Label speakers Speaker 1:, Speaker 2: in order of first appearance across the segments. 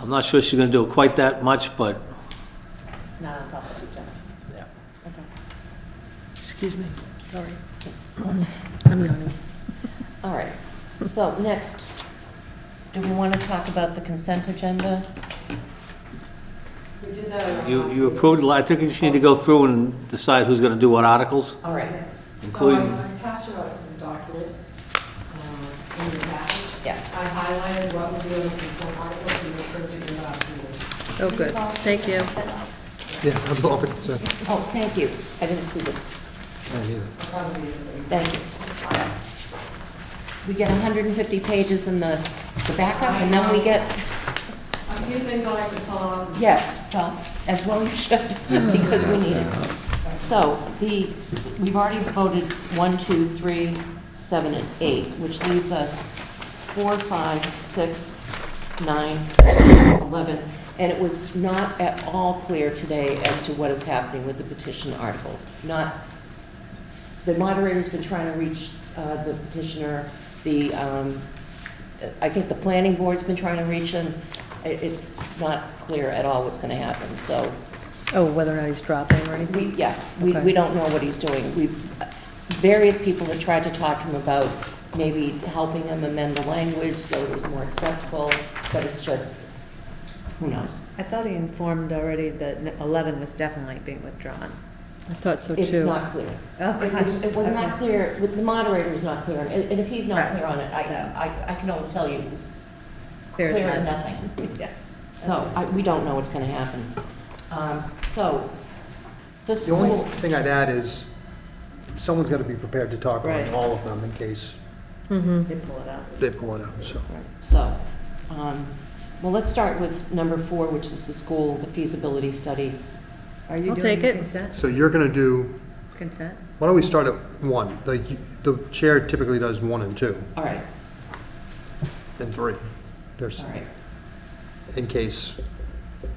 Speaker 1: I'm not sure she's gonna do quite that much, but
Speaker 2: Not on top of each other.
Speaker 1: Yeah.
Speaker 2: Okay.
Speaker 3: Excuse me, sorry.
Speaker 2: I'm yawning. All right, so next, do we want to talk about the consent agenda?
Speaker 4: We did that at our
Speaker 1: you,
Speaker 4: last
Speaker 1: you approved, a lot. I think you just need to go through and decide who's gonna do what articles.
Speaker 4: All right.
Speaker 1: Including-
Speaker 4: So I- I passed you out the document uh, in your package.
Speaker 2: Yeah.
Speaker 4: I highlighted what would be on the consent article and you approved it in the last meeting.
Speaker 3: Oh, good, thank you.
Speaker 5: Yeah, I'm off the consent.
Speaker 2: Oh, thank you. I didn't see this.
Speaker 4: I thought we did it.
Speaker 2: Thank you. We get 150 pages in the the backup, and then we get,
Speaker 4: A few things I like to call out.
Speaker 2: Um, yes, well, as well you should, because we need it. So, the, we've already voted one, two, three, seven, and 8, which leaves us 4, five, six, nine, 11, and it was not at all clear today as to what is happening with the petition articles. Not, the moderator's been trying to reach uh, the petitioner, the, um, I think the planning board's been trying to reach him. It- It's not clear at all what's going to happen, so
Speaker 3: Oh, whether or not he's dropping or anything?
Speaker 2: we, yeah, we,
Speaker 3: Okay.
Speaker 2: we don't know what he's doing. We, various people have tried to talk to him about maybe helping him amend the language so it was more acceptable, but it's just, who knows?
Speaker 6: I thought he informed already that n- 11 was definitely being withdrawn. Oh,
Speaker 3: I thought so
Speaker 2: It's
Speaker 3: too.
Speaker 2: not clear.
Speaker 6: Okay.
Speaker 2: It was, it was not clear, with- the moderator was not clear, on it, and if he's not
Speaker 6: Right.
Speaker 2: clear on it, I, I, I can only tell you it was
Speaker 6: Clear as
Speaker 2: clear as
Speaker 6: mud.
Speaker 2: nothing. So, I, we don't know what's gonna happen. Um, so, the
Speaker 5: The only
Speaker 2: school,
Speaker 5: thing I'd add is, someone's got to be prepared to talk
Speaker 6: Right.
Speaker 5: on all of them in case
Speaker 3: Mhm.
Speaker 6: They pull it out.
Speaker 5: they pull it out, so.
Speaker 2: so, um, well, let's start with number four, which is the school, the feasibility study.
Speaker 6: Are you
Speaker 3: I'll
Speaker 6: doing
Speaker 3: take
Speaker 6: the
Speaker 3: it.
Speaker 6: consent?
Speaker 5: So you're going to do,
Speaker 6: Consent?
Speaker 5: why don't we start at one? Like, you- the chair typically does one and two,
Speaker 2: All right,
Speaker 5: and three. There's,
Speaker 2: all right,
Speaker 5: in case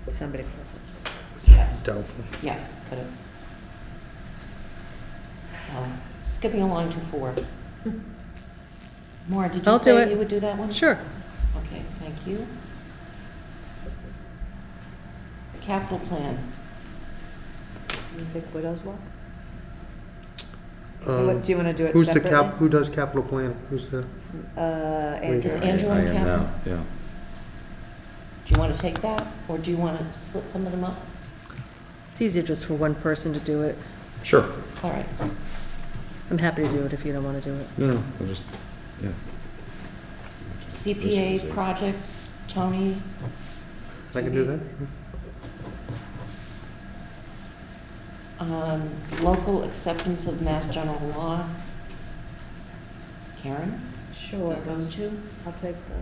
Speaker 6: Somebody pulls it.
Speaker 2: yeah,
Speaker 5: doubtful.
Speaker 2: yeah, could have. So, skipping along to four. Maura, did you
Speaker 3: I'll do it.
Speaker 2: say you would do that one?
Speaker 3: Sure.
Speaker 2: Okay, thank you. Capital plan,
Speaker 6: You think Widows Walk? So
Speaker 5: Um,
Speaker 6: what- Do you want to do it
Speaker 5: Who's the
Speaker 6: separately?
Speaker 5: cap, who does capital planning? Who's the,
Speaker 6: Uh,
Speaker 2: is
Speaker 6: Andrew.
Speaker 2: Angela
Speaker 7: I
Speaker 2: in
Speaker 7: am
Speaker 2: capital?
Speaker 7: now, Yeah.
Speaker 2: Do you want to take that, or do you want to split some of them up?
Speaker 3: It's easier just for one person to do it.
Speaker 7: Sure.
Speaker 2: All right,
Speaker 3: I'm happy to do it if you don't want to do it.
Speaker 7: No, no, I just, yeah.
Speaker 2: CPA projects, Tony,
Speaker 5: I can do that?
Speaker 2: um, local acceptance of mass general law. Karen,
Speaker 6: Sure,
Speaker 2: that goes to,
Speaker 6: I'll take the,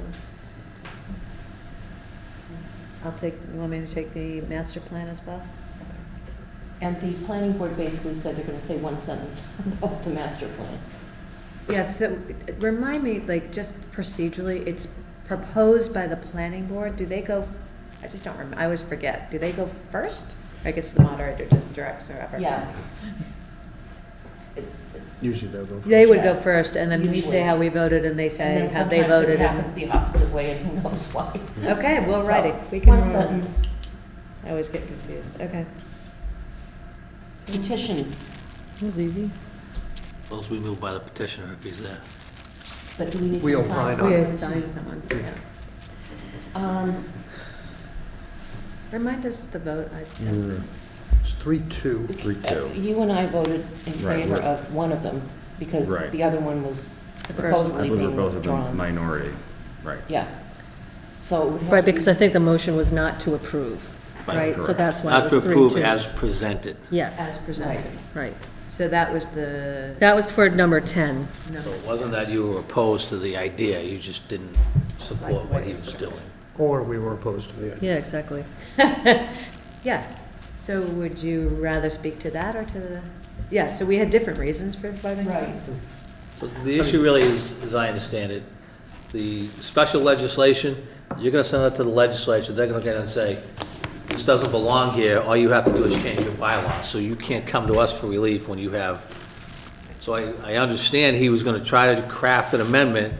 Speaker 6: I'll take, you want me to take the master plan as well?
Speaker 2: and the planning board basically said they're going to say one sentence about the master plan.
Speaker 6: Yes, so remind me, like, just procedurally, it's proposed by the planning board, do they go, I just don't remember, I always forget, do they go first? I guess the moderator just directs or whatever.
Speaker 2: Yeah,
Speaker 5: Usually they'll go first.
Speaker 6: They would go
Speaker 2: Yeah.
Speaker 6: first, and then we
Speaker 2: Usually.
Speaker 6: say how we voted, and they say
Speaker 2: and then
Speaker 6: how they
Speaker 2: sometimes it
Speaker 6: voted.
Speaker 2: happens
Speaker 6: and-
Speaker 2: the opposite way, and who knows why.
Speaker 6: Okay, well,
Speaker 2: So,
Speaker 6: righty, we can.
Speaker 2: One sentence,
Speaker 6: I always get confused, okay.
Speaker 2: petition,
Speaker 3: It was easy.
Speaker 1: Those we move by the petitioner if he's there.
Speaker 2: but do we need
Speaker 5: We
Speaker 2: to
Speaker 5: all
Speaker 2: sign?
Speaker 5: sign on
Speaker 2: something?
Speaker 5: it.
Speaker 6: assign someone, yeah.
Speaker 2: Um,
Speaker 6: Remind us the vote, I,
Speaker 7: We're
Speaker 5: It's three, two.
Speaker 7: Three, two.
Speaker 2: You and I voted in
Speaker 7: Right,
Speaker 2: favor
Speaker 7: we're-
Speaker 2: of one of them, because
Speaker 7: Right.
Speaker 2: the other one was
Speaker 6: The first one.
Speaker 7: I
Speaker 2: supposedly
Speaker 7: believe we're
Speaker 2: being
Speaker 7: both of them
Speaker 2: withdrawn.
Speaker 7: minority, right.
Speaker 2: Yeah. So it would have
Speaker 3: Right,
Speaker 2: to be-
Speaker 3: because I think the motion was not to approve,
Speaker 1: Right,
Speaker 3: right? So
Speaker 7: correct.
Speaker 3: that's why it
Speaker 1: Not to
Speaker 3: was three,
Speaker 1: approve
Speaker 3: two.
Speaker 1: as presented.
Speaker 6: as
Speaker 3: Yes,
Speaker 6: presented.
Speaker 3: right.
Speaker 6: So that was the,
Speaker 3: That was for number 10.
Speaker 6: no,
Speaker 1: So it wasn't that you were opposed to the idea, you just didn't support what he was doing.
Speaker 5: Or we were opposed to the idea.
Speaker 3: Yeah, exactly.
Speaker 6: yeah. So would you rather speak to that or to the, yeah, so we had different reasons for voting.
Speaker 2: Right.
Speaker 1: So The issue really is, as I understand it, the special legislation, you're gonna send it to the legislature, they're gonna look at it and say, this doesn't belong here, all you have to do is change your bylaws, so you can't come to us for relief when you have. So I, I understand he was gonna try to craft an amendment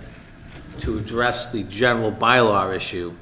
Speaker 1: to address the general bylaw issue,